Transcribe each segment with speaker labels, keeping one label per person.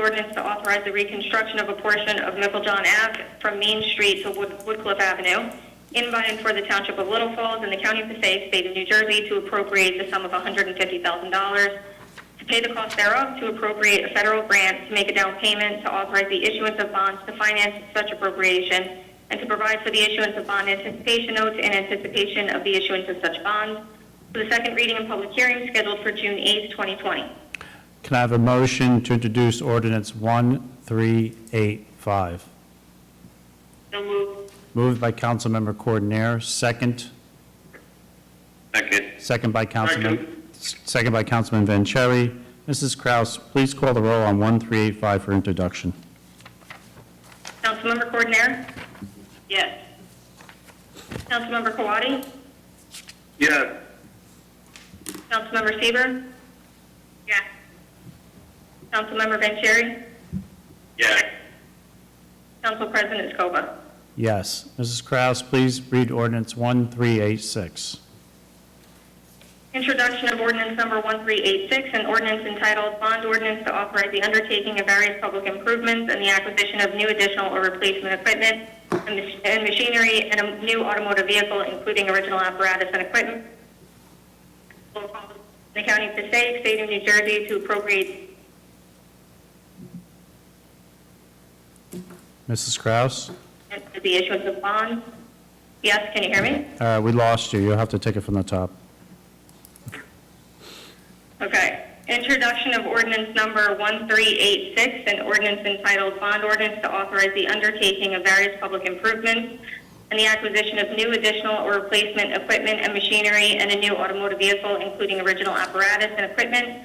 Speaker 1: ordinance to authorize the reconstruction of a portion of John Ave from Main Street to Wood- Woodcliff Avenue in by and for the Township of Little Falls in the County of Passaic, State of New Jersey, to appropriate the sum of $150,000 to pay the cost thereof, to appropriate a federal grant, to make a down payment, to authorize the issuance of bonds to finance such appropriation, and to provide for the issuance of bond anticipation notes in anticipation of the issuance of such bonds, for the second reading and public hearing scheduled for June 8, 2020.
Speaker 2: Can I have a motion to introduce ordinance 1385?
Speaker 1: So moved.
Speaker 2: Moved by Councilmember Coordinator, second,
Speaker 3: Second.
Speaker 2: second by Councilman, second by Councilman Vanchery. Mrs. Kraus, please call the roll on 1385 for introduction.
Speaker 1: Councilmember Coordinator? Yes. Councilmember Kawadi?
Speaker 3: Yes.
Speaker 1: Councilmember Seaver? Yes. Councilmember Vanchery?
Speaker 3: Yes.
Speaker 1: Council President Scoba?
Speaker 2: Yes. Mrs. Kraus, please read ordinance 1386.
Speaker 1: Introduction of ordinance number 1386, an ordinance entitled Bond Ordinance to Authorize the Undertaking of Various Public Improvements and the Acquisition of New Additional or Replacement Equipment and mach- and Machinery and a New Automotive Vehicle, Including Original Apparatus and Equipment. The County of Passaic, State of New Jersey, to appropriate
Speaker 2: Mrs. Kraus,
Speaker 1: the issuance of bonds. Yes, can you hear me?
Speaker 2: uh, we lost you. You'll have to take it from the top.
Speaker 1: Okay. Introduction of ordinance number 1386, an ordinance entitled Bond Ordinance to Authorize the Undertaking of Various Public Improvements and the Acquisition of New Additional or Replacement Equipment and Machinery and a New Automotive Vehicle, Including Original Apparatus and Equipment,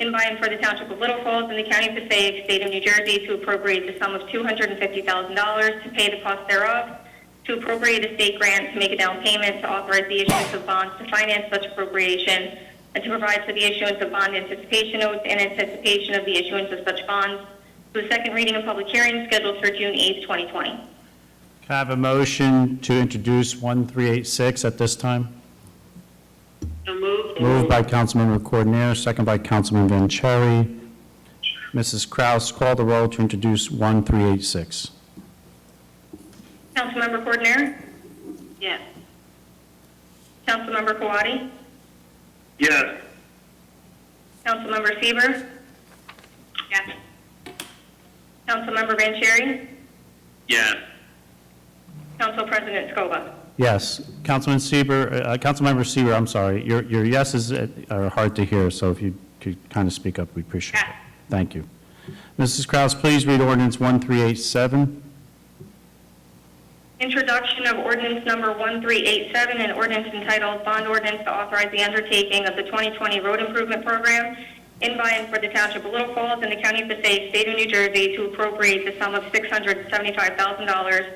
Speaker 1: in by and for the Township of Little Falls in the County of Passaic, State of New Jersey, to appropriate the sum of $250,000 to pay the cost thereof, to appropriate a state grant to make a down payment to authorize the issuance of bonds to finance such appropriation and to provide for the issuance of bond anticipation notes in anticipation of the issuance of such bonds to the second reading and public hearing scheduled for June 8, 2020.
Speaker 2: Can I have a motion to introduce 1386 at this time? Moved by Councilmember Coordinator, second by Councilman Vanchery. Mrs. Kraus, call the roll to introduce 1386.
Speaker 1: Councilmember Coordinator? Yes. Councilmember Kawadi?
Speaker 3: Yes.
Speaker 1: Councilmember Seaver? Yes. Councilmember Vanchery?
Speaker 3: Yes.
Speaker 1: Council President Scoba?
Speaker 2: Yes, Councilman Seaver, uh, Councilmember Seaver, I'm sorry, your, your yeses uh, are hard to hear, so if you could kind of speak up, we appreciate it.
Speaker 1: Yes.
Speaker 2: Thank you. Mrs. Kraus, please read ordinance 1387.
Speaker 1: Introduction of ordinance number 1387, an ordinance entitled Bond Ordinance to Authorize the Undertaking of the 2020 Road Improvement Program in by and for the Township of Little Falls and the County of Passaic, State of New Jersey, to appropriate the sum of $675,000,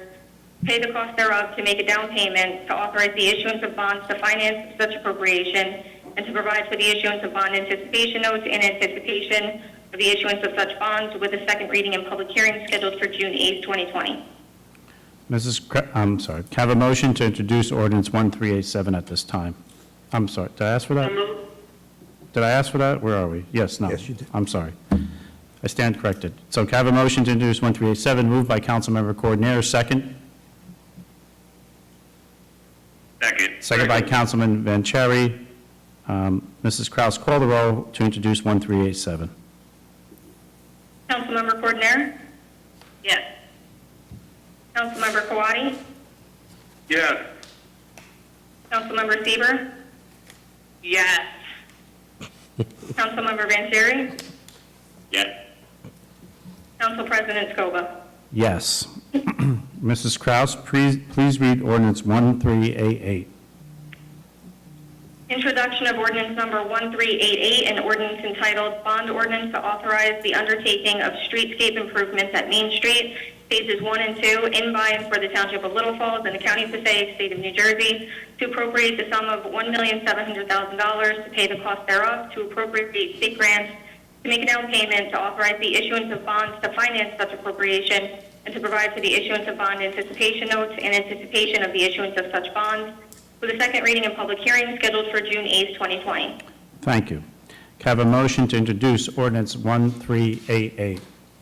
Speaker 1: pay the cost thereof, to make a down payment, to authorize the issuance of bonds to finance such appropriation, and to provide for the issuance of bond anticipation notes in anticipation of the issuance of such bonds with a second reading and public hearing scheduled for June 8, 2020.
Speaker 2: Mrs., Kra- I'm sorry, can I have a motion to introduce ordinance 1387 at this time? I'm sorry, did I ask for that? Did I ask for that? Where are we? Yes, no.
Speaker 4: Yes, you did.
Speaker 2: I'm sorry. I stand corrected. So can I have a motion to introduce 1387, moved by Councilmember Coordinator, second?
Speaker 3: Second.
Speaker 2: Second by Councilman Vanchery. Um, Mrs. Kraus, call the roll to introduce 1387.
Speaker 1: Councilmember Coordinator? Yes. Councilmember Kawadi?
Speaker 3: Yes.
Speaker 1: Councilmember Seaver? Yes. Councilmember Vanchery?
Speaker 3: Yes.
Speaker 1: Council President Scoba?
Speaker 2: Yes. Mrs. Kraus, please please read ordinance 1388.
Speaker 1: Introduction of ordinance number 1388, an ordinance entitled Bond Ordinance to Authorize the Undertaking of Streetscape Improvements at Main Street, Phases 1 and 2, in by and for the Township of Little Falls and the County of Passaic, State of New Jersey, to appropriate the sum of $1,700,000 to pay the cost thereof, to appropriate state grants, to make a down payment, to authorize the issuance of bonds to finance such appropriation, and to provide for the issuance of bond anticipation notes in anticipation of the issuance of such bonds, with a second reading and public hearing scheduled for June 8, 2020.
Speaker 2: Thank you. Can I have a motion to introduce ordinance 1388?